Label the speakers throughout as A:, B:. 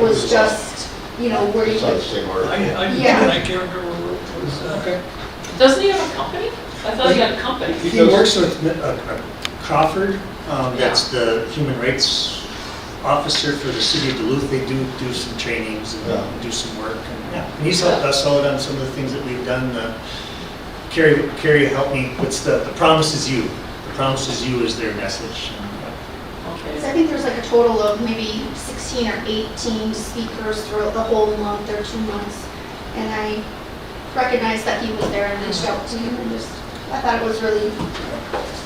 A: was just, you know, where you
B: It's not the
A: could,
B: same
C: I,
B: article.
C: I,
A: Yeah.
C: I can't remember where it was, uh,
D: Okay.
E: Doesn't he have a company? I thought he had a company.
D: He works with Mi- uh, uh, Crawford, um, that's the human rights officer for the city of Duluth. They do, do some trainings
B: Yeah.
D: and do some work. and, yeah. And he's helped us out on some of the things that we've done. uh, Carrie, Carrie helped me, what's the, the promise is you. The promise is you is their message.
A: because
E: Okay.
A: I think there's like a total of maybe 16 or 18 speakers throughout the whole month or two months. And I recognized that he was there and reached out to him and just, I thought it was really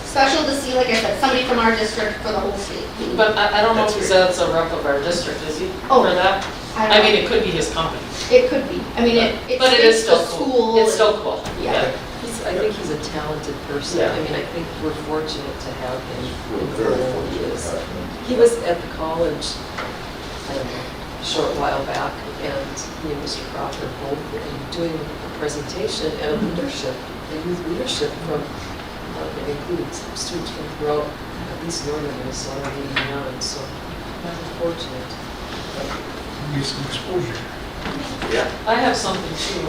A: special to see, like I said, somebody from our district for the whole state.
E: But I, I don't know if
D: That's
E: he's,
D: great.
E: that's a rep of our district, is he?
A: Oh.
E: For that?
A: I
E: I
A: don't
E: mean,
A: know,
E: it could be his company.
A: it could be. I mean, it, it's
E: But it is
A: it's the
E: still cool.
A: school.
E: It's
A: and-
E: still cool,
A: Yeah.
E: yeah.
F: He's, I think he's a talented person.
E: Yeah.
F: I mean, I think we're fortunate to have him.
B: We're very fortunate. to have them.
F: He was at the college, I don't know, a short while back, and me and Mr. Crawford both were doing a presentation and a leadership, a youth leadership from, uh, it included some students from throughout, at least northern Minnesota, and beyond, so we're fortunate.
C: maybe some exposure.
E: I have something too.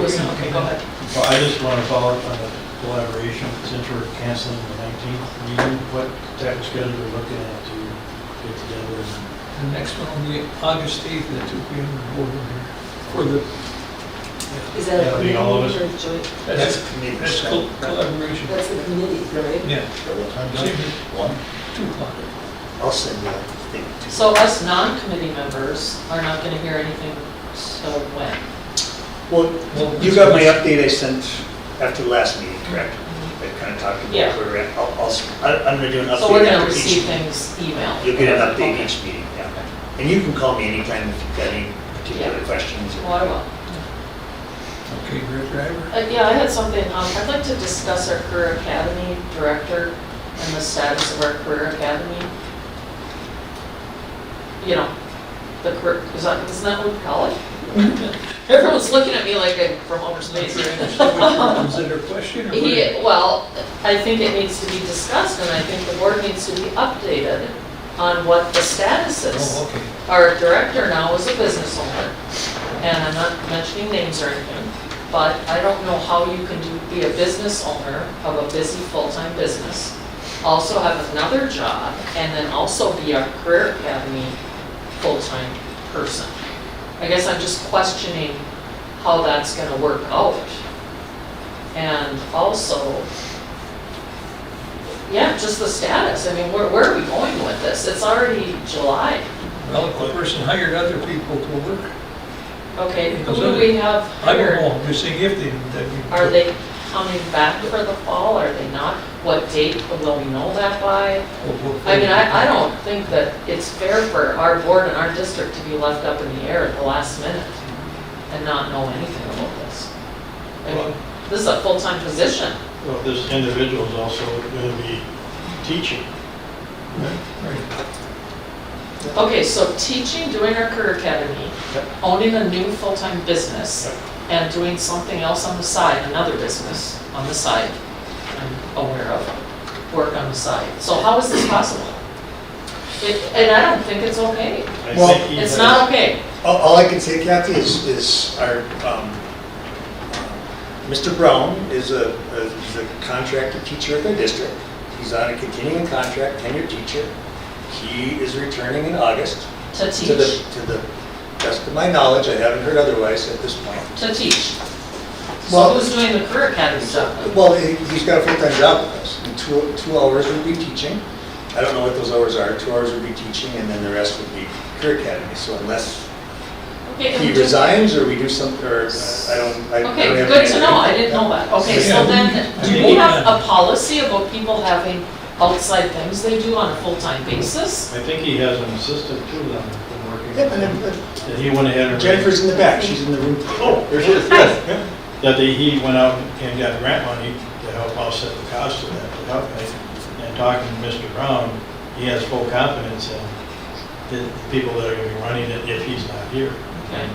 E: Listen, okay, go ahead.
G: Well, I just want to follow up on the collaboration, since we're canceling the 19th meeting, what type of schedule we're looking at to get together? and-
C: The next one will be August eighth at two P M in Boardman here for the,
F: Is that a
G: Yeah, being
F: committee or
G: all of us.
F: a joint?
C: that's,
D: community
C: that's
D: center.
C: col- collaboration.
F: That's a committee, right?
C: Yeah,
B: At what time?
C: Same as-
B: One?
C: two o'clock.
D: I'll send you a thing too.
E: So us non-committee members are not gonna hear anything till when?
D: Well,
C: Well,
D: you got my update I sent after the last meeting, correct? I kind of talked
E: Mm-hmm. Yeah.
D: about where we're at. I'll- I'll, s- I- I'm going to do an update.
E: So we're gonna
D: after each
E: receive
D: meeting.
E: things emailed.
D: You'll get an update
E: Okay.
D: each meeting, yeah. And you can call me anytime if you've got any particular
E: Yeah.
D: questions.
E: Well, I will.
C: Okay, Greg Driver.
E: Uh, Yeah, I had something, um, I'd like to discuss our career academy director and the status of our career academy. You know, the career, is that, isn't that what we call it? Everyone's looking at me like I'm from outer space.
C: Was that a question or? what?
E: Yeah, well, I think it needs to be discussed, and I think the board needs to be updated on what the status
C: Oh,
E: is.
C: okay.
E: Our director now is a business owner, and I'm not mentioning names or anything, but I don't know how you can do- be a business owner of a busy full-time business, also have another job, and then also be a career academy full-time person. I guess I'm just questioning how that's gonna work out. And also, yeah, just the status, I mean, where, where are we going with this? It's already July.
C: Well, if the person hired other people to work.
E: Okay, who do we have
C: I don't know,
E: hired?
C: I'm just saying if they, that we.
E: Are they coming back for the fall, are they not? What date will we know that by? I mean, I, I don't think that it's fair for our board and our district to be left up in the air at the last minute and not know anything about this. I mean, this is a full-time position.
G: Well, this individual is also going to be teaching.
C: Right.
E: Okay, so teaching, doing our career academy,
G: Yep.
E: owning a new full-time business, and doing something else on the side, another business on the side, I'm aware of, work on the side. So how is this possible? It- And I don't think it's okay.
G: I
D: Well,
G: think he
E: It's
G: has-
E: not okay.
D: All, all I can say, Kathy, is, is our, um, Mr. Brown is a, a- is a contracted teacher at the district. He's on a continuing contract, tenured teacher. He is returning in August.
E: To
D: To the,
E: teach,
D: to the best of my knowledge, I haven't heard otherwise at this point.
E: to teach. So
D: Well-
E: who's doing the career academy stuff? then?
D: Well, he- he's got a full-time job with us, and two, two hours would be teaching. I don't know what those hours are, two hours would be teaching, and then the rest would be career academy, so unless
E: Okay,
D: he
E: and do-
D: resigns or we do some, or uh, I don't, I don't have.
E: Okay, good to
D: any-
E: know, I didn't know that. Okay, so
C: Yeah.
E: then, do
C: Yeah.
E: we have a policy about people having outside things they do on a full-time basis?
G: I think he has an assistant too that has been working.
D: Yep, and then,
G: That he went ahead
D: uh,
G: and.
D: Jennifer's in the back, she's in the room.
G: Oh, there she is, yes. That they- he went out and got grant money to help offset the cost of that, to help it. And talking to Mr. Brown, he has full confidence in the people that are going to be running it if he's not here.
E: Okay.
G: Um,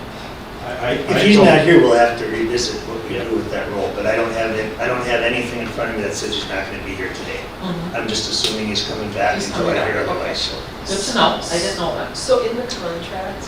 G: I, I.
D: If he's not here, we'll have to revisit what we do with that role, but I don't have, it- I don't have anything in front of me that says he's not gonna be here today.
E: Mhm.
D: I'm just assuming he's coming back
E: He's
D: until I
E: coming
D: hear
E: back,
D: otherwise, so.
E: Good to know, I didn't know that.
F: So in the contract,